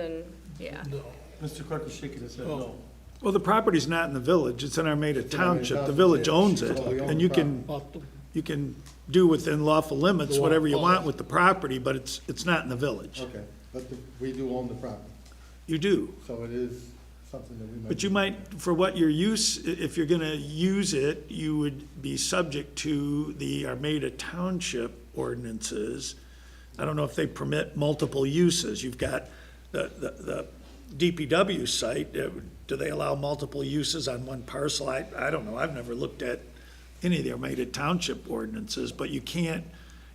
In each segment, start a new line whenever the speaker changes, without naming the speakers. and, yeah.
Mr. Clark is shaking his head,
Oh.
no.
Well, the property's not in the village, it's in
in
Armada
Armada
Township, the
Township,
village
yeah.
owns it,
So we own
and
the
you can,
Oh.
you can do within lawful limits whatever you want with the property, but it's, it's not in the village.
Okay, but the- we do own the property,
You do,
so it is something that we might.
but you might, for what your use, i- if you're gonna use it, you would be subject to the Armada Township ordinances. I don't know if they permit multiple uses, you've got the, the, the DPW site, uh, do they allow multiple uses on one parcel? I, I don't know, I've never looked at any of the Armada Township ordinances, but you can't,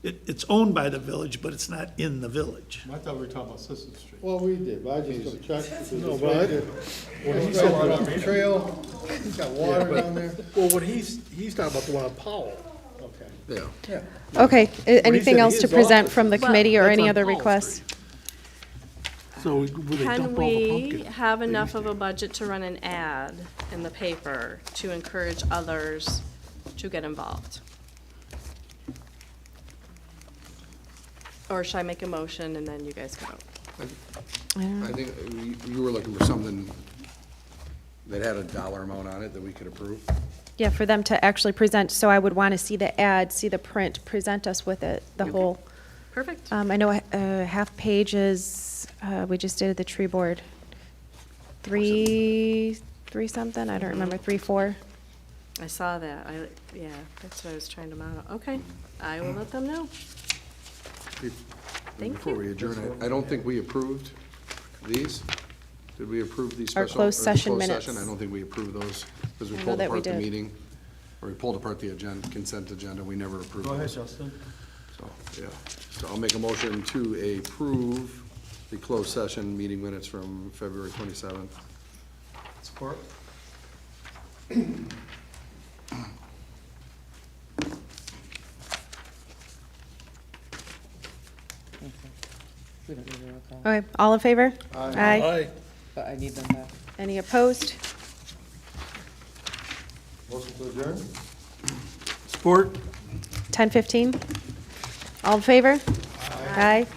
it, it's owned by the village, but it's not in the village.
I thought we were talking about Sisson Street.
Well, we did, but I just checked. No, but. He's
So we're
got
not
the
reading.
trail, he's got water down there.
Well, what he's, he's talking about the one on Powell.
Okay.
Yeah.
Okay, a- anything
said
else
his
to present
office.
from the
Well,
committee or
that's
any
on
other
Paul
requests?
So will they
Can
dump all the
we
pumpkin?
have enough of a budget to run an ad in the paper to encourage others to get involved? Or should I make a motion and then you guys go?
I think uh, you- you were looking for something that had a dollar amount on it that we could approve.
Yeah, for them to actually present, so I would want to see the ad, see the print, present us with it, the whole.
Perfect.
Um, I know a a half page is, uh, we just did the tree board. Three, three something, I don't remember, three, four.
I saw that. I, yeah, that's what I was trying to model. Okay, I
Hmm.
will let them know. Thank
Before
you.
we adjourn, I I don't think we approved these. Did we approve these
Our
special?
closed
or the
session
closed
minutes.
session? I don't think we approved those because we
I know
pulled
that we
apart the
did.
meeting. Or we pulled apart the agenda, consent agenda. We never approved
Go ahead,
those.
Justin.
So, yeah. So I'll make a motion to approve the closed session meeting minutes from February 27th.
Support?
We don't need a roll call,
Okay, all in favor? Aye.
Aye.
but I need them back.
Any opposed?
Motion to adjourn?
Sport?
Ten fifteen? All in favor? Aye.